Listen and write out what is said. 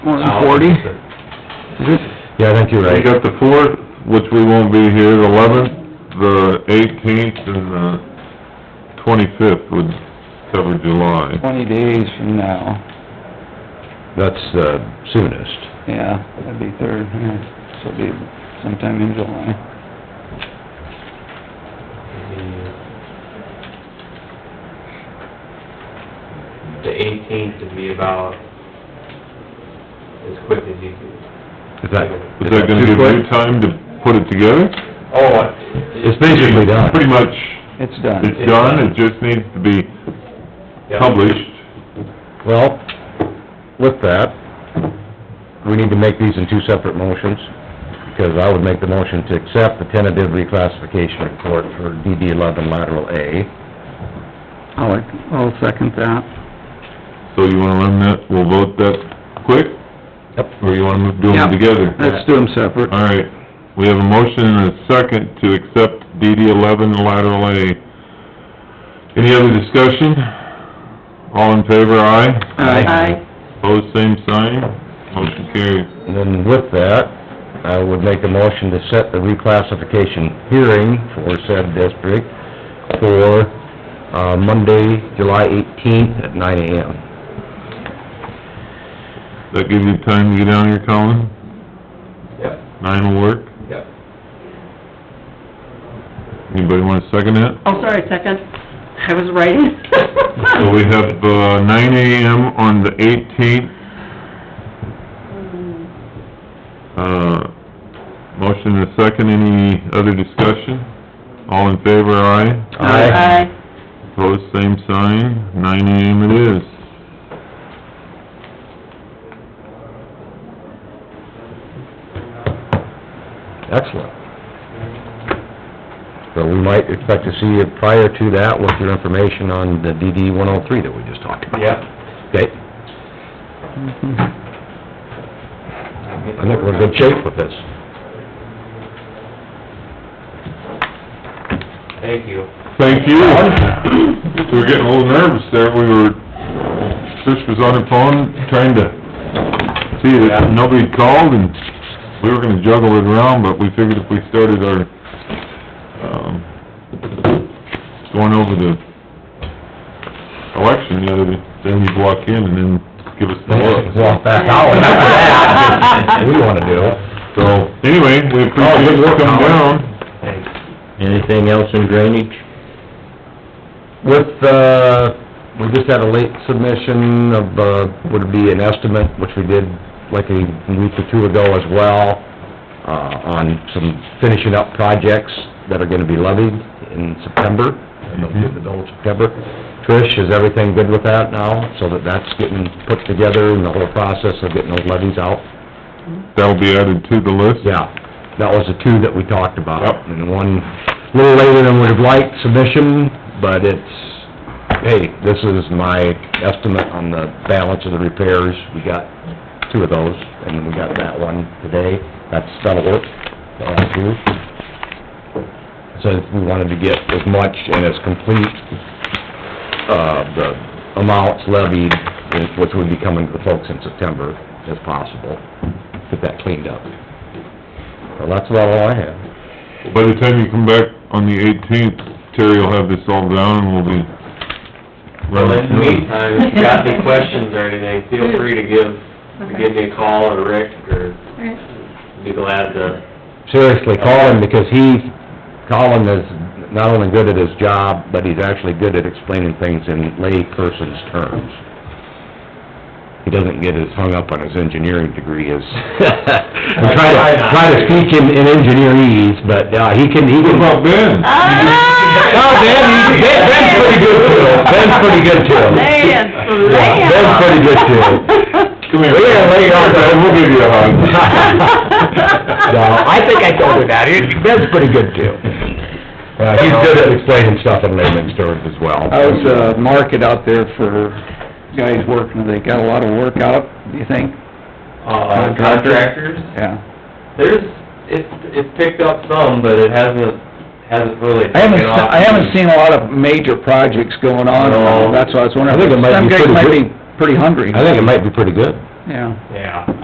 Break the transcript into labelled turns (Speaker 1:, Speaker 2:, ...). Speaker 1: One
Speaker 2: Oh,
Speaker 1: forty?
Speaker 3: Yeah, I think you're
Speaker 4: We
Speaker 3: right.
Speaker 4: got the fourth, which we won't be here, the eleventh, the eighteenth, and the twenty-fifth would cover July.
Speaker 1: Twenty days from now,
Speaker 3: That's the soonest.
Speaker 1: yeah, that'd be third, yeah, so it'd be sometime in July.
Speaker 2: The eighteenth would be about as quick as you could.
Speaker 3: Is that,
Speaker 4: Is
Speaker 3: is
Speaker 4: that
Speaker 3: that
Speaker 4: gonna give
Speaker 3: too
Speaker 4: you
Speaker 3: quick?
Speaker 4: time to put it together?
Speaker 2: Oh.
Speaker 3: It's basically done.
Speaker 4: Pretty much,
Speaker 1: It's done.
Speaker 4: it's done, it just needs to be published.
Speaker 3: Well, with that, we need to make these in two separate motions, because I would make the motion to accept the tentative reclassification report for DD eleven lateral A.
Speaker 1: I'll, I'll second that.
Speaker 4: So you wanna run that, we'll vote that quick,
Speaker 3: Yep.
Speaker 4: or you wanna do
Speaker 1: Yeah.
Speaker 4: them together?
Speaker 1: Let's do them separate.
Speaker 4: All right, we have a motion and a second to accept DD eleven lateral A. Any other discussion? All in favor, aye?
Speaker 1: Aye.
Speaker 4: Pose same sign, motion carries.
Speaker 3: And then with that, I would make a motion to set the reclassification hearing for said district for, uh, Monday, July eighteenth at nine AM.
Speaker 4: That give you time to get down here, Colin?
Speaker 2: Yep,
Speaker 4: Nine will work?
Speaker 2: yep.
Speaker 4: Anybody wanna second that?
Speaker 5: Oh, sorry, second. I was writing.
Speaker 4: So we have, uh, nine AM on the eighteenth. Uh, motion and a second, any other discussion? All in favor, aye?
Speaker 5: Aye.
Speaker 4: Pose same sign, nine AM it is.
Speaker 3: Excellent. So we might expect to see you prior to that with your information on the DD one oh three that we just talked about.
Speaker 2: Yep.
Speaker 3: Okay, I think we're in good shape with this.
Speaker 2: Thank you.
Speaker 4: Thank you. We were getting a little nervous there, we were, Trish was on her phone trying to see that nobody called and we were gonna juggle it around, but we figured if we started our, um, going over the election the other day, then you'd walk in and then give us the look.
Speaker 3: Walk back out. That's what We wanna do.
Speaker 4: So, anyway, we appreciate you coming down.
Speaker 2: Thanks.
Speaker 3: Anything else in drainage? With, uh, we just had a late submission of, uh, would it be an estimate, which we did like a week or two ago as well, uh, on some finishing up projects that are gonna be levied in September, in the middle of September. Trish, is everything good with that now, so that that's getting put together and the whole process of getting those levies out?
Speaker 4: That'll be added to the list.
Speaker 3: Yeah, that was the two that we talked about.
Speaker 4: Yep.
Speaker 3: And one, a little later than we'd have liked submission, but it's, hey, this is my estimate on the balance of the repairs. We got two of those, and we got that one today. That's, that'll work, the last two. So we wanted to get as much and as complete, uh, the amounts levied, which would be coming to the folks in September, as possible. Get that cleaned up. Well, that's about all I have.
Speaker 4: By the time you come back on the eighteenth, Terry will have this all down and we'll be
Speaker 2: Well, in
Speaker 4: running
Speaker 2: the
Speaker 4: through.
Speaker 2: meantime, if you got any questions or anything, feel free to give, to give me a call or Rick, or be glad to, uh,
Speaker 3: Seriously, call him, because he, Colin is not only good at his job, but he's actually good at explaining things in layperson's terms. He doesn't get as hung up on his engineering degree as, I try
Speaker 2: try
Speaker 3: to,
Speaker 2: not
Speaker 3: try to
Speaker 2: to.
Speaker 3: speak him in engineerese, but, uh, he can, he
Speaker 4: What
Speaker 3: can...
Speaker 4: about Ben?
Speaker 3: Oh, Ben, he- Ben- Ben's pretty good too, Ben's pretty good too. Yeah, Ben's pretty good too.
Speaker 4: Come here.
Speaker 3: We gotta lay it on, Ben.
Speaker 4: We'll give you a hug.
Speaker 3: No, I think I told her that, He- Ben's pretty good too. Uh, he's good at explaining stuff in layman's terms as well.
Speaker 1: How's, uh, market out there for guys working? They got a lot of work out, do you think?
Speaker 2: uh, contractors.
Speaker 1: Yeah.
Speaker 2: There's, it's, it's picked up some, but it hasn't, hasn't really
Speaker 1: I haven't,
Speaker 2: taken
Speaker 1: se-
Speaker 2: off.
Speaker 1: I haven't seen a lot of major projects going on,
Speaker 2: No.
Speaker 1: that's why I was wondering.
Speaker 3: I think it might be
Speaker 1: Some guys
Speaker 3: pretty
Speaker 1: might
Speaker 3: good.
Speaker 1: be pretty hungry.
Speaker 3: I think it might be pretty good.
Speaker 6: yeah.
Speaker 3: Yeah.